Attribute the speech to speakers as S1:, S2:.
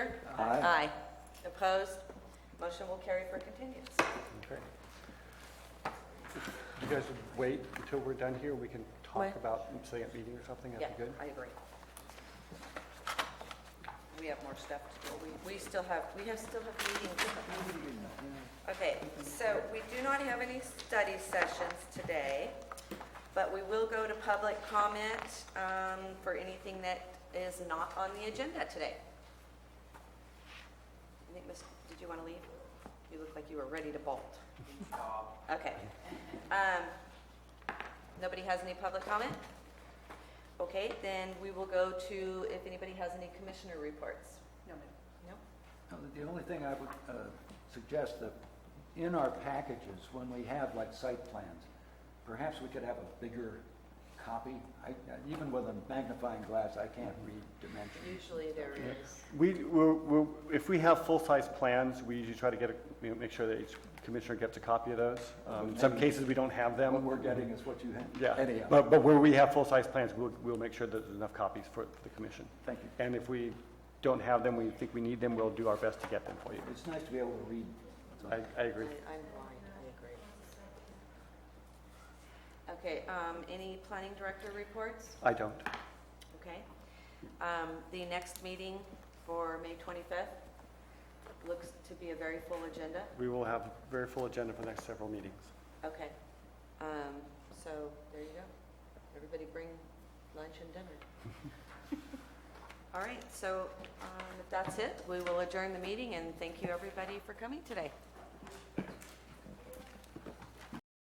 S1: Aye.
S2: Aye. Opposed? Motion will carry for continuance.
S1: Okay. You guys would wait until we're done here, we can talk
S2: Wait.
S1: about, say, at meeting or something,
S2: Yeah,
S1: that'd be good?
S2: I agree. We have more stuff to do. We, we still have, we have, still have meetings. Okay, so we do not have any study sessions today, but we will go to public comment um, for anything that is not on the agenda today. I think, Miss, did you want to leave? You look like you were ready to bolt. Okay. Um, Nobody has any public comment? Okay, then we will go to if anybody has any commissioner reports. No, ma'am.
S3: Now, The only thing I would uh, suggest that in our packages, when we have like site plans, perhaps we could have a bigger copy. I- Even with a magnifying glass, I can't read dimensions.
S2: Usually there is.
S1: We, we're- we're- if we have full-size plans, we usually try to get, a- you know, make sure that each commissioner gets a copy of those. Um, In some cases, we don't have
S3: What
S1: them.
S3: we're getting is what you have,
S1: Yeah,
S3: anyhow.
S1: but, but where we have full-size plans, we'll, we'll make sure that there's enough copies for the commission.
S3: Thank you.
S1: And if we don't have them, we think we need them, we'll do our best to get them for you.
S3: It's nice to be able to read.
S1: I, I agree.
S2: I'm blind, I agree. Okay, um, any planning director reports?
S1: I don't.
S2: Okay. Um, the next meeting for May twenty-fifth looks to be a very full agenda.
S1: We will have a very full agenda for the next several meetings.
S2: Okay. Um, so there you go. Everybody bring lunch and dinner. All right, so, um, if that's it, we will adjourn the meeting and thank you everybody for coming today.